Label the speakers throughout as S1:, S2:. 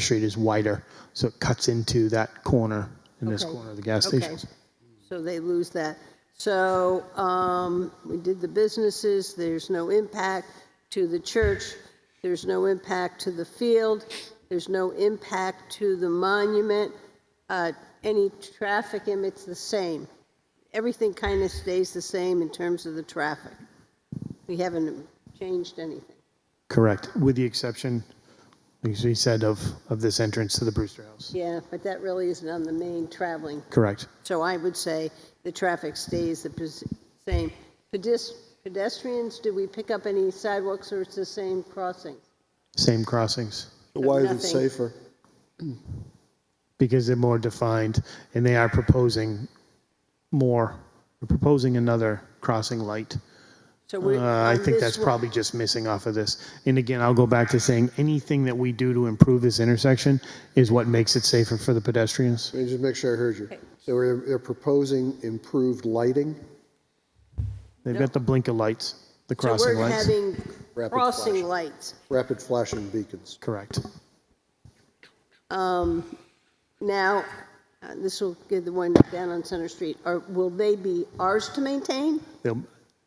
S1: Street is wider, so it cuts into that corner, in this
S2: Okay.
S1: corner of the gas
S2: Okay.
S1: station.
S2: So they lose that. So um, we did the businesses, there's no impact to the church, there's no impact to the field, there's no impact to the monument, Uh, any traffic, and it's the same. Everything kind of stays the same in terms of the traffic. We haven't changed anything.
S1: Correct, with the exception, as we said, of, of this entrance to the Brewster House.
S2: Yeah, but that really isn't on the main traveling
S1: Correct,
S2: So I would say the traffic stays the pes- same. Pedes- Pedestrians, do we pick up any sidewalks or it's the same crossing?
S1: same crossings,
S3: Why is it
S2: nothing.
S3: safer?
S1: because they're more defined, and they are proposing more, they're proposing another crossing light.
S2: So
S1: Uh,
S2: we're-
S1: I
S2: on
S1: think
S2: this
S1: that's
S2: one-
S1: probably just missing off of this. And again, I'll go back to saying, anything that we do to improve this intersection is what makes it safer for the pedestrians.
S3: Let me just make sure I heard you. So they're, they're proposing improved lighting,
S1: They've got the blinker lights, the
S2: So
S1: crossing
S2: we're
S1: lights.
S2: having
S3: Rapid
S2: crossing
S3: flashing.
S2: lights.
S3: rapid flashing beacons.
S1: Correct.
S2: Now, uh, this will give the one down on Center Street, or will they be ours to maintain?
S1: They'll,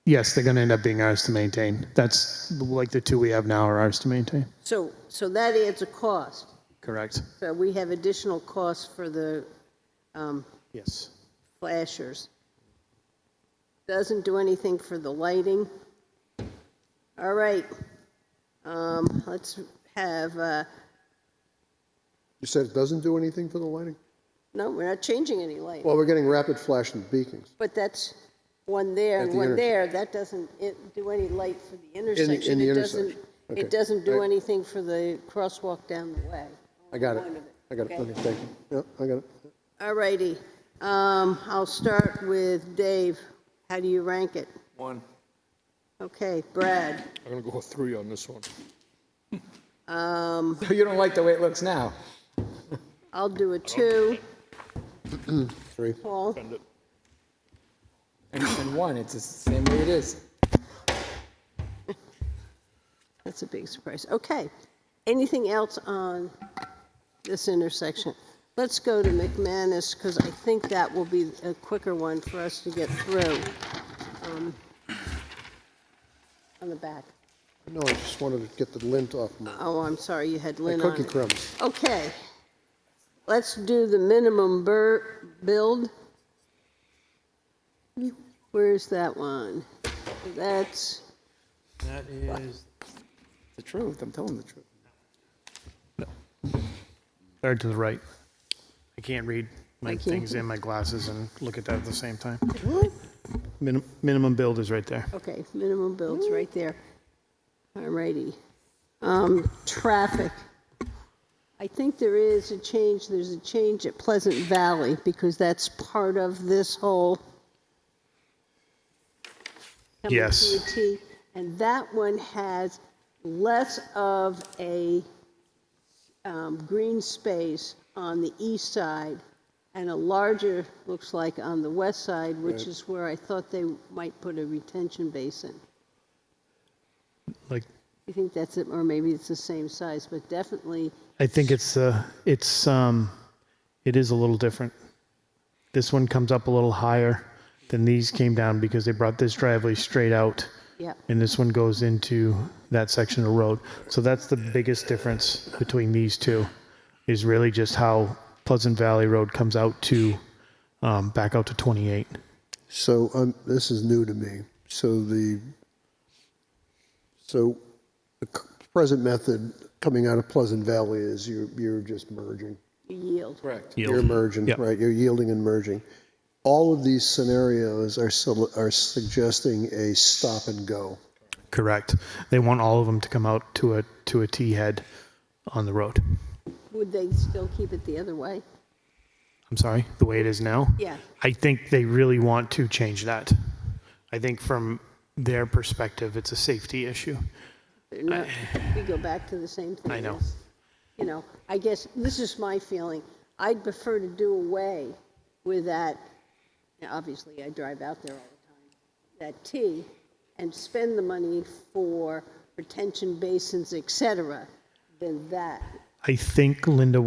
S1: yes, they're going to end up being ours to maintain. That's like the two we have now are ours to maintain.
S2: So, so that adds a cost.
S1: Correct.
S2: So we have additional costs for the um,
S1: Yes.
S2: flashers. Doesn't do anything for the lighting. All right, um, let's have, uh,
S3: You said it doesn't do anything for the lighting?
S2: no, we're not changing any light.
S3: Well, we're getting rapid flashing beacons.
S2: But that's one there
S3: At
S2: and
S3: the
S2: one
S3: intersection.
S2: there, that doesn't it- do any light for the intersection.
S3: in the
S2: It doesn't,
S3: intersection. Okay.
S2: it doesn't do
S3: I-
S2: anything for the crosswalk down the way.
S3: I got it.
S2: One of it.
S3: I got it.
S2: Okay.
S3: Okay, thank you. Yeah, I got it.
S2: All righty, um, I'll start with Dave. How do you rank it?
S4: One.
S2: Okay, Brad,
S5: I'm gonna go with three on this one.
S4: You don't like the way it looks now.
S2: Um. I'll do a two.
S3: Three.
S2: Paul?
S4: And, and one, it's the same way it is.
S2: That's a big surprise. Okay. Anything else on this intersection? Let's go to McManus because I think that will be a quicker one for us to get through. Um, On the back.
S3: No, I just wanted to get the lint off my
S2: Oh, I'm sorry, you had
S3: my
S2: Lynn on
S3: cookie
S2: it.
S3: crumbs.
S2: Okay. Let's do the minimum bur, build. Where's that one? That's,
S4: That is the truth. I'm telling the truth.
S1: Third to the right. I can't read my
S2: Thank you.
S1: things in my glasses and look at that at the same time. Minim- minimum build is right there.
S2: Okay, minimum builds right there. All righty. Um, Traffic. I think there is a change, there's a change at Pleasant Valley because that's part of this whole. coming
S1: Yes.
S2: PET, And that one has less of a um, green space on the east side and a larger, looks like, on the west side, which is where I thought they might put a retention basin.
S1: Like
S2: I think that's it, or maybe it's the same size, but definitely,
S1: I think it's uh, it's um, it is a little different. This one comes up a little higher than these came down because they brought this driveway straight out,
S2: yeah.
S1: and this one goes into that section of road. So that's the biggest difference between these two, is really just how Pleasant Valley Road comes out to um, back out to 28.
S3: So um, this is new to me. So the so the c- present method coming out of Pleasant Valley is you're you're just merging.
S2: Yield.
S4: Correct.
S3: You're merging,
S1: Yep.
S3: right? You're yielding and merging. All of these scenarios are sol- are suggesting a stop and go.
S1: Correct. They want all of them to come out to a to a T head on the road.
S2: Would they still keep it the other way?
S1: I'm sorry, the way it is now?
S2: Yeah.
S1: I think they really want to change that. I think from their perspective, it's a safety issue.
S2: They're not- We go back to the same thing.
S1: I know.
S2: as- You know, I guess, this is my feeling. I'd prefer to do away with that, now, obviously, I drive out there all the time, that T, and spend the money for retention basins, et cetera, than that.
S1: I think Linda